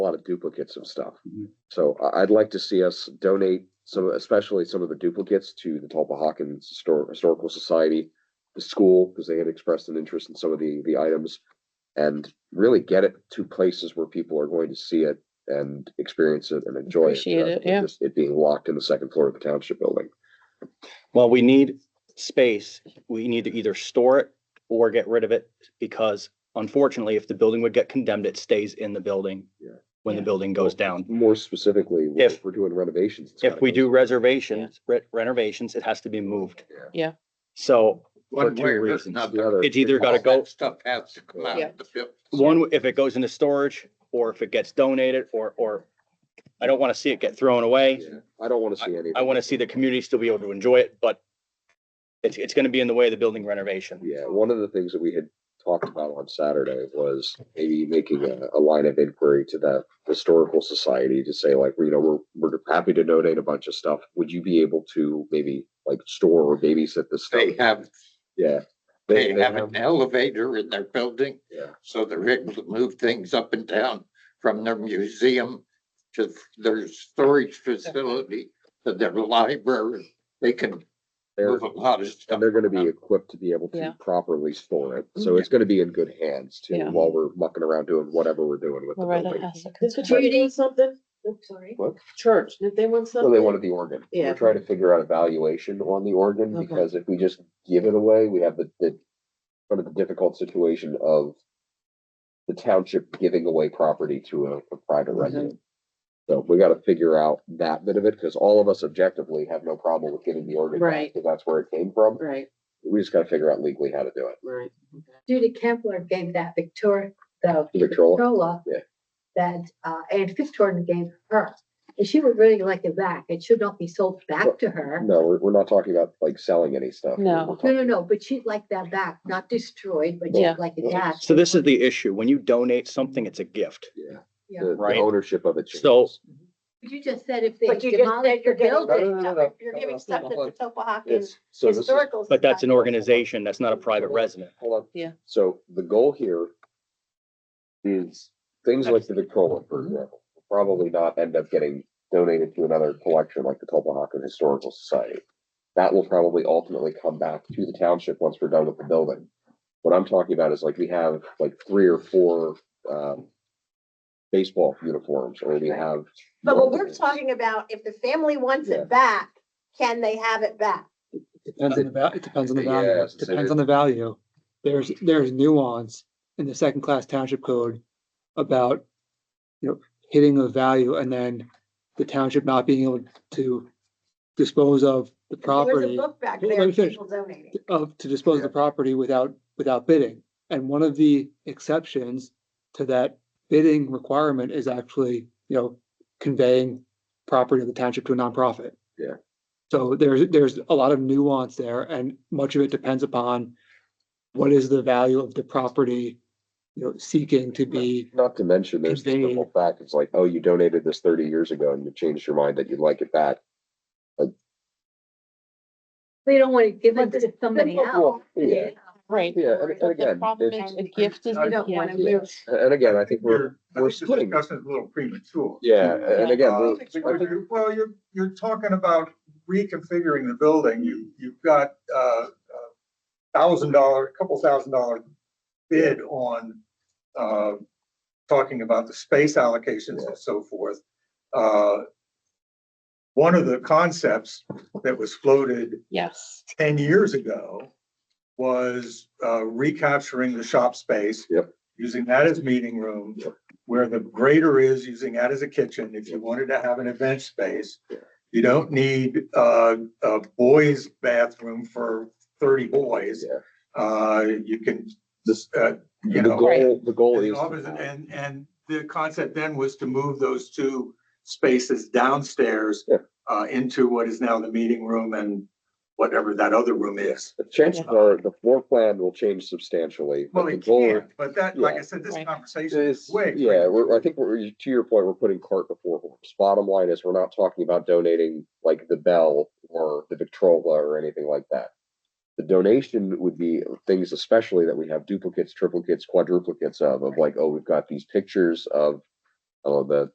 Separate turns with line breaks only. a lot of duplicates of stuff.
Mhm.
So I, I'd like to see us donate some, especially some of the duplicates to the Tulpa Hawkins Histor- Historical Society, the school, because they had expressed an interest in some of the, the items. And really get it to places where people are going to see it and experience it and enjoy it.
Appreciate
rather
it,
than
yeah.
just It being locked in the second floor of the township building.
Well, we need space. We need to either store it or get rid of it because unfortunately, if the building would get condemned, it stays in the building
Yeah.
when the
Yeah.
building goes down.
More specifically, if
If-
we're doing renovations. it's
If
gotta
we
go-
do reservations, re- renovations, it has to be moved.
Yeah.
Yeah.
So for
One
two
way or this-
reasons.
another.
The other-
It's either gotta
All that
go,
Stuff has to come out
Yeah.
of the building.
one, if it goes into storage or if it gets donated or, or I don't want to see it get thrown away.
Yeah, I don't want to see any.
I want to see the community still be able to enjoy it, but it's, it's going to be in the way of the building renovation.
Yeah, one of the things that we had talked about on Saturday was maybe making a, a line of inquiry to that historical society to say like, you know, we're, we're happy to donate a bunch of stuff. Would you be able to maybe like store or babysit this stuff?
They have,
Yeah.
they have an elevator in their building,
Yeah.
so they're able to move things up and down from their museum to their storage facility, to their library. They can
They're-
move a lot of stuff.
And they're gonna be
around.
equipped to be able to
Yeah. Mm-hmm.
properly store it. So it's gonna be in good hands too,
Yeah.
while we're mucking around doing whatever we're doing with the
Loretta
building.
has a
Did the
concern.
church want something? Oh, sorry.
What?
Church, did they want
So
something?
they wanted the organ. We're
Yeah.
trying to figure out a valuation on the organ
Okay.
because if we just give it away, we have the, the sort of the difficult situation of the township giving away property to a, a
Mm-hmm.
private resident. So we gotta figure out that bit of it, because all of us objectively have no problem with giving the organ back,
Right.
because that's where it came from.
Right,
We just gotta figure out legally how to do it.
right.
Judy Kempler gave that Victoria, the
The Victrola?
Victrola
Yeah.
That, uh, Ann Fitzgerald gave her, and she would really like it back. It should not be sold
Well,
back to her.
No, we're, we're not talking about like selling any stuff. We're-
No.
we're
No,
talking-
no, no, but she'd like that back, not destroyed, but
Yeah.
she'd like it back.
So this is the issue. When you donate something, it's a gift.
Yeah,
Yeah.
the, the
Right.
ownership of it.
So-
changes.
But you just said if they
But you just said
demolish
you're
the
giving
building.
No, no, no,
stuff,
no,
if you're
no, no,
giving stuff
no,
to the Topahakans
It's, so this is.
Historical.
But that's
Society.
an organization, that's not a private resident.
Hold on.
Yeah.
So the goal here is things like the Victrola, for
Mm-hmm.
example, will probably not end up getting donated to another collection like the Tulpahawken Historical Society. That will probably ultimately come back to the township once we're done with the building. What I'm talking about is like we have like three or four um baseball uniforms or we have.
But what we're talking about, if the family wants
Yeah.
it back, can they have it back?
Depends on the val, it depends on the
Yeah,
value,
so
depends
there-
on the value. There's, there's nuance in the second class township code about, you know, hitting a value and then the township not being able to dispose of the
There's a
property,
book back
Well,
there,
let me finish.
people donating.
of, to dispose of the property without, without bidding. And one of the exceptions to that bidding requirement is actually, you know, conveying property of the township to a nonprofit.
Yeah.
So there's, there's a lot of nuance there and much of it depends upon what is the value of the property, you know, seeking to be,
Not to mention, there's the
Conveying.
simple fact, it's like, oh, you donated this thirty years ago and you changed your mind that you'd like it back.
They don't want to give it to somebody
Well,
else.
Yeah,
Right.
yeah, and- and
But the
again,
problem
it's-
is a gift is
They
a
don't want to
gift.
move.
And and again, I think we're,
You're, I
we're
think the
splitting.
discussion is a little premature.
yeah, and again,
Uh,
we- I
because
think-
you're- Well, you're, you're talking about reconfiguring the building. You, you've got uh, a thousand dollar, a couple thousand dollar bid on uh, talking about the space allocations and so forth. Uh, One of the concepts that was floated
Yes.
ten years ago was uh, recapturing the shop space.
Yep.
Using that as meeting room, where the grader is, using that as a kitchen, if you wanted to have an event space. You don't need uh, a boys bathroom for thirty boys.
Yeah.
Uh, You can, this, uh, you
the
know.
goal, the goal
And
is. to
opposite-
have-
And, and the concept then was to move those two spaces downstairs
Yeah.
uh, into what is now the meeting room and whatever that other room is.
The chances
Yeah.
are the floor plan will change substantially. but
Well,
the
it
goal
can, but that, like I
yeah.
said, this
Right.
conversation
is-
is way.
Yeah, we're, I think we're, to your point, we're putting cart before horse. Bottom line is, we're not talking about donating like the bell or the Victrola or anything like that. The donation would be things especially that we have duplicates, triplicates, quadruplicates of, of like, oh, we've got these pictures of Oh, that